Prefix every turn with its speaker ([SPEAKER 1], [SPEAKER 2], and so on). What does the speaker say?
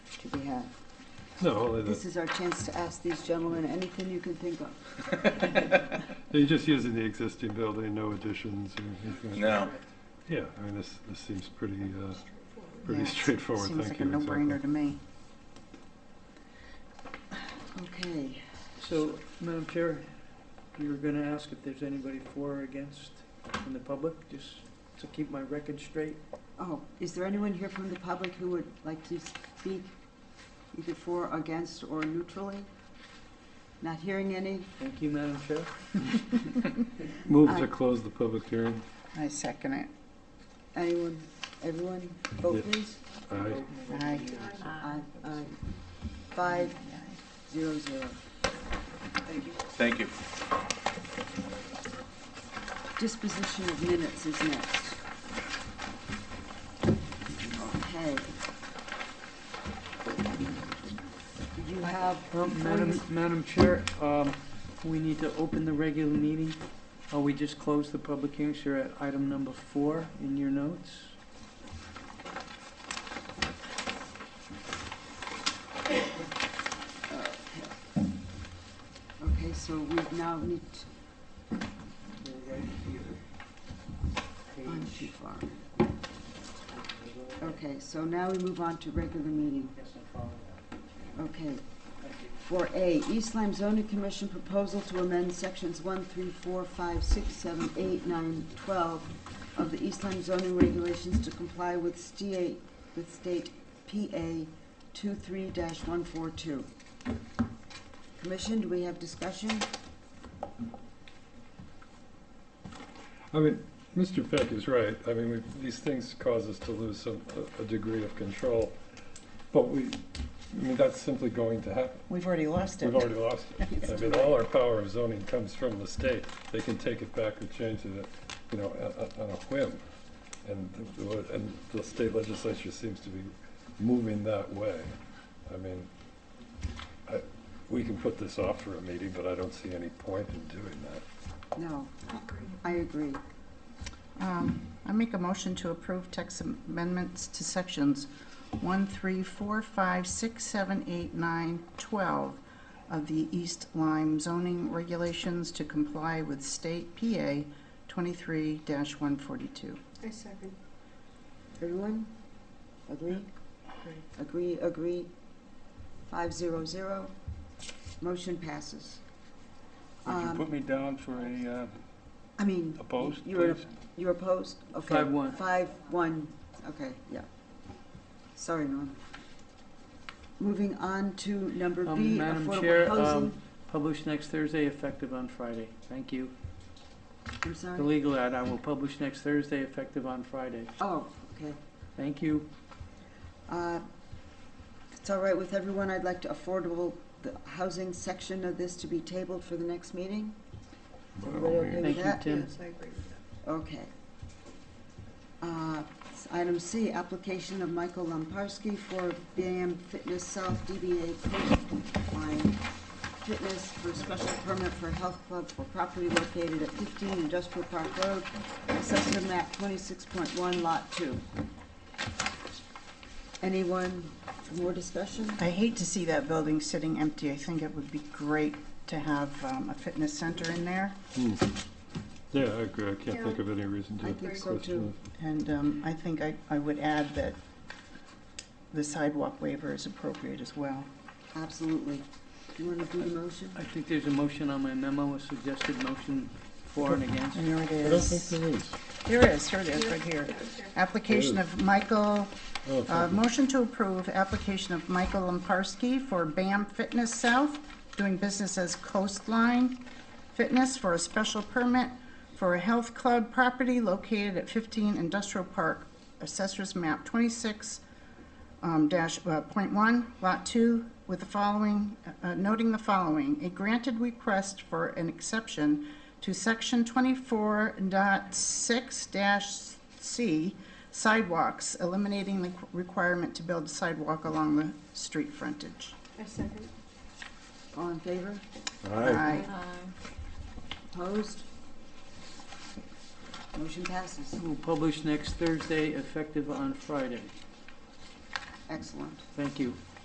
[SPEAKER 1] have.
[SPEAKER 2] No,
[SPEAKER 1] This is our chance to ask these gentlemen anything you can think of.
[SPEAKER 2] they're just using the existing building, no additions or anything.
[SPEAKER 3] No.
[SPEAKER 2] Yeah, I mean, this, this seems pretty, uh, pretty
[SPEAKER 1] Yeah,
[SPEAKER 2] straightforward,
[SPEAKER 1] Seems
[SPEAKER 2] thank
[SPEAKER 1] like a
[SPEAKER 2] you.
[SPEAKER 1] no-brainer to
[SPEAKER 2] exactly.
[SPEAKER 1] me. Okay,
[SPEAKER 4] So, Madam Chair, you were going to ask if there's anybody for or against in the public, just to keep my record straight?
[SPEAKER 1] oh, is there anyone here from the public who would like to speak either for, against, or neutrally? Not hearing any?
[SPEAKER 4] Thank you, Madam Chair.
[SPEAKER 2] Move
[SPEAKER 1] Aye.
[SPEAKER 2] to close the public hearing.
[SPEAKER 5] I second it.
[SPEAKER 1] Anyone, everyone, vote please?
[SPEAKER 2] Aye.
[SPEAKER 5] Aye.
[SPEAKER 1] Aye, aye. Five, zero, zero. Thank you.
[SPEAKER 3] Thank you.
[SPEAKER 1] Disposition of minutes is next. Okay. You have,
[SPEAKER 4] Well,
[SPEAKER 1] before you-
[SPEAKER 4] Oh, Madam, Madam Chair, um, we need to open the regular meeting. Uh, we just closed the public hearing, so you're at item number four in your notes.
[SPEAKER 1] okay, so we now need, to-
[SPEAKER 4] They're right here.
[SPEAKER 1] I'm too
[SPEAKER 4] Page-
[SPEAKER 1] far. Okay, so now we move on to regular meeting.
[SPEAKER 4] Yes, I'm following that.
[SPEAKER 1] Okay.
[SPEAKER 4] Thank you.
[SPEAKER 1] For A, East Lyme Zoning Commission proposal to amend sections 1, 3, 4, 5, 6, 7, 8, 9, 12 of the East Lyme zoning regulations to comply with state, with state PA 23-142. Commission, do we have discussion?
[SPEAKER 2] I mean, Mr. Peck is right. I mean, we- these things cause us to lose some, a- a degree of control. But we, I mean, that's simply going to happen.
[SPEAKER 5] We've already lost it.
[SPEAKER 2] We've already lost it. I mean, all our power of zoning comes from the state. They can take it back or change it, you know, on- on a whim. And, the- and the state legislature seems to be moving that way. I mean, I, we can put this off for a meeting, but I don't see any point in doing that.
[SPEAKER 1] No. I agree.
[SPEAKER 5] Um, I make a motion to approve text amendments to sections 1, 3, 4, 5, 6, 7, 8, 9, 12 of the East Lyme zoning regulations to comply with state PA 23-142.
[SPEAKER 6] I second.
[SPEAKER 1] Everyone? Agree? Agree, agree. Five zero zero. Motion passes.
[SPEAKER 3] Would you
[SPEAKER 1] Um,
[SPEAKER 3] put me down for a uh,
[SPEAKER 1] I mean.
[SPEAKER 3] opposed,
[SPEAKER 1] You're,
[SPEAKER 3] please?
[SPEAKER 1] you're opposed? Okay.
[SPEAKER 4] Five, one.
[SPEAKER 1] Five, one, okay, yeah. Sorry, Norm. Moving on to number
[SPEAKER 4] Um,
[SPEAKER 1] B,
[SPEAKER 4] Madam
[SPEAKER 1] affordable
[SPEAKER 4] Chair, um,
[SPEAKER 1] housing.
[SPEAKER 4] published next Thursday, effective on Friday. Thank you.
[SPEAKER 1] I'm
[SPEAKER 4] The
[SPEAKER 1] sorry.
[SPEAKER 4] legal ad I will publish next Thursday, effective on Friday.
[SPEAKER 1] Oh, okay.
[SPEAKER 4] Thank you.
[SPEAKER 1] Uh, if It's all right with everyone, I'd like to affordable, the housing section of this to be tabled for the next meeting? Everybody okay with
[SPEAKER 4] Thank you,
[SPEAKER 1] that?
[SPEAKER 4] Tim.
[SPEAKER 6] Yes, I agree with that.
[SPEAKER 1] Okay. Uh, s- Item C, application of Michael Lamparski for BAM Fitness South DBA Coastline Fitness for special permit for health club for property located at 15 Industrial Park Road, assessor map 26.1, lot 2. Anyone, more discussion?
[SPEAKER 5] I hate to see that building sitting empty. I think it would be great to have um, a fitness center in there.
[SPEAKER 2] Yeah, I agree. I can't
[SPEAKER 6] Yeah.
[SPEAKER 2] think of any reason to.
[SPEAKER 1] I think so, too.
[SPEAKER 2] question it.
[SPEAKER 5] And um, I think I I would add that the sidewalk waiver is appropriate as well.
[SPEAKER 1] Absolutely. Do you want to do the motion?
[SPEAKER 4] I think there's a motion on my memo, a suggested motion for and against.
[SPEAKER 5] And there it
[SPEAKER 2] I don't think
[SPEAKER 5] is.
[SPEAKER 2] there is.
[SPEAKER 5] There is, here it is, right here. Application of Michael,
[SPEAKER 2] Oh,
[SPEAKER 5] uh,
[SPEAKER 2] thank you.
[SPEAKER 5] motion to approve application of Michael Lamparski for BAM Fitness South, doing business as Coastline Fitness for a special permit for a health club property located at 15 Industrial Park, Assessor's Map 26, um, dash, uh, point one, lot two, with the following, uh, noting the following, a granted request for an exception to section twenty-four dot six dash C sidewalks, eliminating the qu- requirement to build a sidewalk along the street frontage.
[SPEAKER 6] I second.
[SPEAKER 1] All in favor?
[SPEAKER 2] Aye.
[SPEAKER 1] Opposed? Motion passes.
[SPEAKER 4] We'll publish next Thursday, effective on Friday.
[SPEAKER 1] Excellent.
[SPEAKER 4] Thank you.